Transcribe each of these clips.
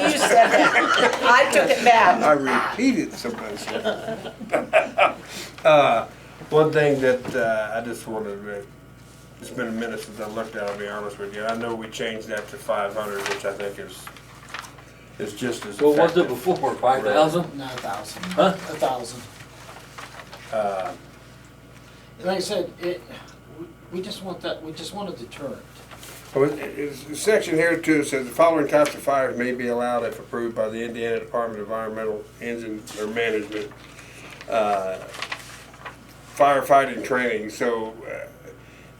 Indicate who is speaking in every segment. Speaker 1: said that. I took it back.
Speaker 2: I repeated some of those. Uh, One thing that uh, I just wanted to, it's been a minute since I looked at, it, I'll be honest with you. I know we changed that to five hundred, which I think is, is just as
Speaker 3: Well, what's it
Speaker 2: effective.
Speaker 3: before, five thousand?
Speaker 4: Not a thousand.
Speaker 3: Huh?
Speaker 4: A thousand.
Speaker 2: Uh,
Speaker 4: Like I said, it, we- we just want that, we just want a deterrent.
Speaker 2: well, it- it's- the Section here too says the following types of fires may be allowed if approved by the Indiana Department of Environmental Engine or Management. uh, Firefighting training, so uh,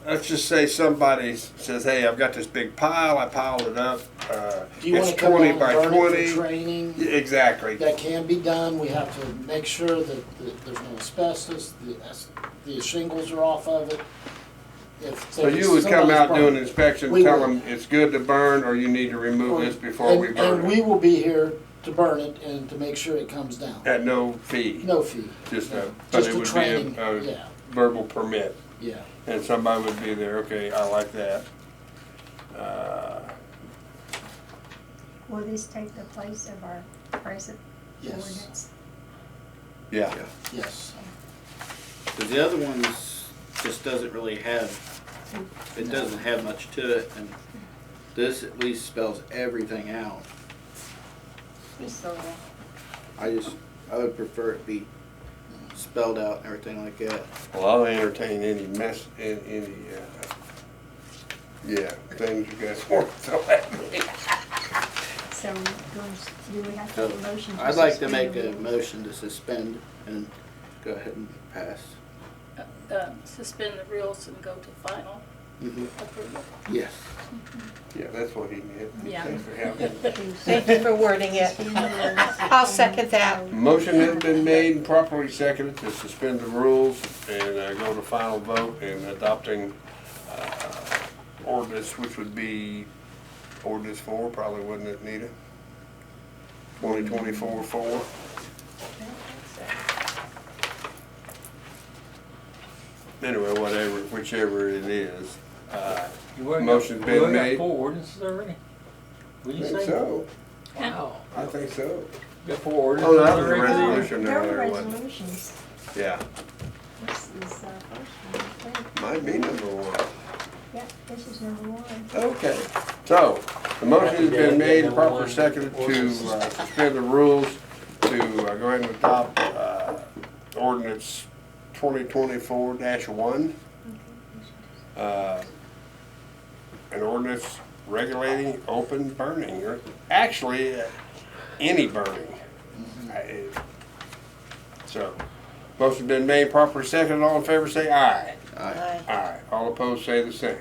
Speaker 2: let's just say somebody s- says, hey, I've got this big pile, I piled it up. uh,
Speaker 4: Do you wanna
Speaker 2: it's
Speaker 4: come out
Speaker 2: 20
Speaker 4: and
Speaker 2: by
Speaker 4: burn it
Speaker 2: 20.
Speaker 4: for training?
Speaker 2: Yeah, Exactly.
Speaker 4: That can be done, we have to make sure that, that there's no asbestos, the, as- the shingles are off of it. If-
Speaker 2: So
Speaker 4: if
Speaker 2: you would come
Speaker 4: somebody's
Speaker 2: out, do an
Speaker 4: problem-
Speaker 2: inspection,
Speaker 4: We
Speaker 2: tell
Speaker 4: would.
Speaker 2: them it's good to burn, or you need to remove this before we
Speaker 4: And-
Speaker 2: burn
Speaker 4: And we
Speaker 2: it,
Speaker 4: will be here to burn it and to make sure it comes down.
Speaker 2: at no fee.
Speaker 4: No fee.
Speaker 2: Just a, but
Speaker 4: Just
Speaker 2: it
Speaker 4: a
Speaker 2: would be
Speaker 4: training,
Speaker 2: a- a
Speaker 4: yeah,
Speaker 2: verbal permit,
Speaker 4: yeah.
Speaker 2: and somebody would be there, okay, I like that. Uh,
Speaker 5: Will this take the place of our present ordinance?
Speaker 2: Yeah.
Speaker 4: Yes.
Speaker 6: Because the other one's just doesn't really have, it doesn't have much to it, and this at least spells everything out.
Speaker 5: Yes. So, uh,
Speaker 6: I just, I would prefer it be spelled out and everything like that.
Speaker 2: Well, I'll entertain any mess, an- any, uh, yeah, things you guys want to throw at me.
Speaker 5: so do we have to have a motion?
Speaker 6: I'd like to
Speaker 5: suspend
Speaker 6: make
Speaker 5: the
Speaker 6: a
Speaker 5: rules?
Speaker 6: motion to suspend and go ahead and pass.
Speaker 7: uh, uh, suspend the rules and go to final approval.
Speaker 6: Yes.
Speaker 2: Yeah, that's what he meant.
Speaker 7: Yeah.
Speaker 2: Thanks for helping.
Speaker 1: Thank you for wording it.
Speaker 5: Suspend the rules.
Speaker 1: I'll second that.
Speaker 2: Motion has been made and properly seconded to suspend the rules and uh, go to final vote in adopting uh, ordinance, which would be ordinance four, probably, wouldn't it, Nita? Twenty twenty-four four. Anyway, whatever, whichever it is. Uh,
Speaker 3: You already got-
Speaker 2: Motion's been
Speaker 3: you already got
Speaker 2: made.
Speaker 3: Four ordinances already?
Speaker 2: I
Speaker 3: What'd you
Speaker 2: think
Speaker 3: say?
Speaker 2: so.
Speaker 3: Wow.
Speaker 2: I think so.
Speaker 3: Got four
Speaker 2: Oh,
Speaker 3: ordinances
Speaker 2: that was a
Speaker 3: already?
Speaker 2: resolution,
Speaker 5: There
Speaker 2: no,
Speaker 5: were
Speaker 2: there wasn't.
Speaker 5: resolutions.
Speaker 2: Yeah,
Speaker 5: This is, uh, first one, I think.
Speaker 2: might be number one.
Speaker 5: Yeah, this is number one.
Speaker 2: Okay, so, the motion has been made, and proper seconded to uh, suspend the rules to uh, go ahead and adopt uh, ordinance twenty twenty-four one. An ordinance regulating open burning, or actually, uh, any burning. I- So, motion been made, proper seconded, all in favor say aye.
Speaker 6: Aye.
Speaker 1: Uh,
Speaker 2: Aye. All opposed say the same.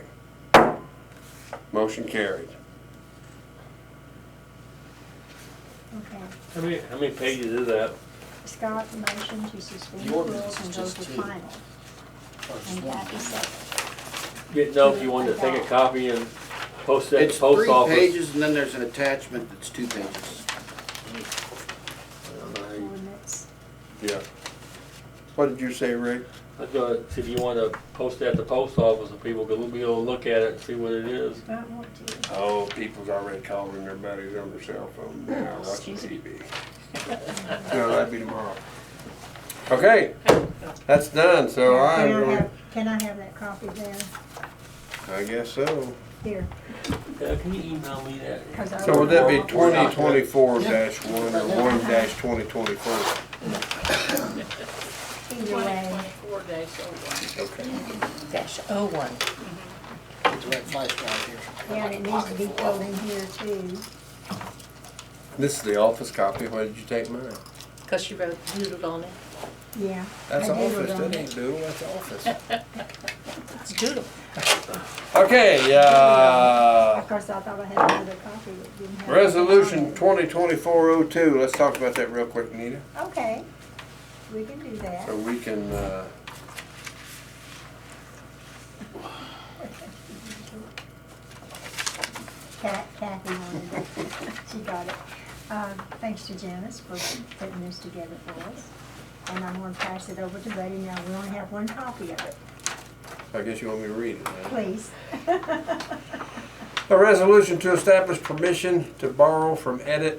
Speaker 2: Motion carried.
Speaker 5: Okay.
Speaker 3: How many, how many pages is that?
Speaker 5: Scott, motion to suspend the
Speaker 4: The ordinance
Speaker 5: rules and
Speaker 4: is
Speaker 5: go
Speaker 4: just
Speaker 5: to
Speaker 4: two. Or
Speaker 5: final.
Speaker 4: just
Speaker 5: And
Speaker 4: one.
Speaker 5: that is second.
Speaker 3: Didn't know if you wanted to take a copy and post it at
Speaker 6: It's
Speaker 3: the post
Speaker 6: three
Speaker 3: office.
Speaker 6: pages and then there's an attachment that's two pages.
Speaker 5: ordinance.
Speaker 2: Yeah. What did you say, Rick?
Speaker 3: I'd go, see if you wanna post it at the post office, and people could be able to look at it and see what it is.
Speaker 5: I want to.
Speaker 2: Oh, people's already calling their buddies on their cell phone now, watching
Speaker 5: Excuse me.
Speaker 2: TV. No, that'd be tomorrow. Okay, that's done, so I'm
Speaker 5: Can I
Speaker 2: going,
Speaker 5: have, can I have that copy there?
Speaker 2: I guess so.
Speaker 5: Here,
Speaker 3: Yeah, can you email me that?
Speaker 5: 'cause I.
Speaker 2: So would that be
Speaker 3: We're not- we're
Speaker 2: twenty
Speaker 3: not-
Speaker 2: twenty-four dash one or one dash twenty twenty-four?
Speaker 5: Either way.
Speaker 7: 2024 days, so one.
Speaker 2: Okay.
Speaker 1: Dash oh one.
Speaker 4: It's red light right here.
Speaker 5: Yeah, and it needs to be filled in here too.
Speaker 2: This is the office copy, why did you take mine?
Speaker 1: Because she wrote doodled on it.
Speaker 5: Yeah.
Speaker 2: That's
Speaker 5: I doodled
Speaker 2: office,
Speaker 5: on
Speaker 2: that
Speaker 5: it.
Speaker 2: ain't doodle, that's office.
Speaker 1: It's doodle.
Speaker 2: Okay, uh,
Speaker 5: Of course, I thought I had another copy that didn't have.
Speaker 2: resolution twenty twenty-four oh two, let's talk about that real quick, Nita,
Speaker 5: Okay, we can do that.
Speaker 2: so we can, uh,
Speaker 5: Cat- Kathy wanted it, she got it. Um, Thanks to Janice for putting this together for us. And I'm gonna pass it over to Buddy now, we only have one copy of it,
Speaker 2: I guess you want me to read it, huh?
Speaker 5: please.
Speaker 2: A resolution to establish permission to borrow from Edit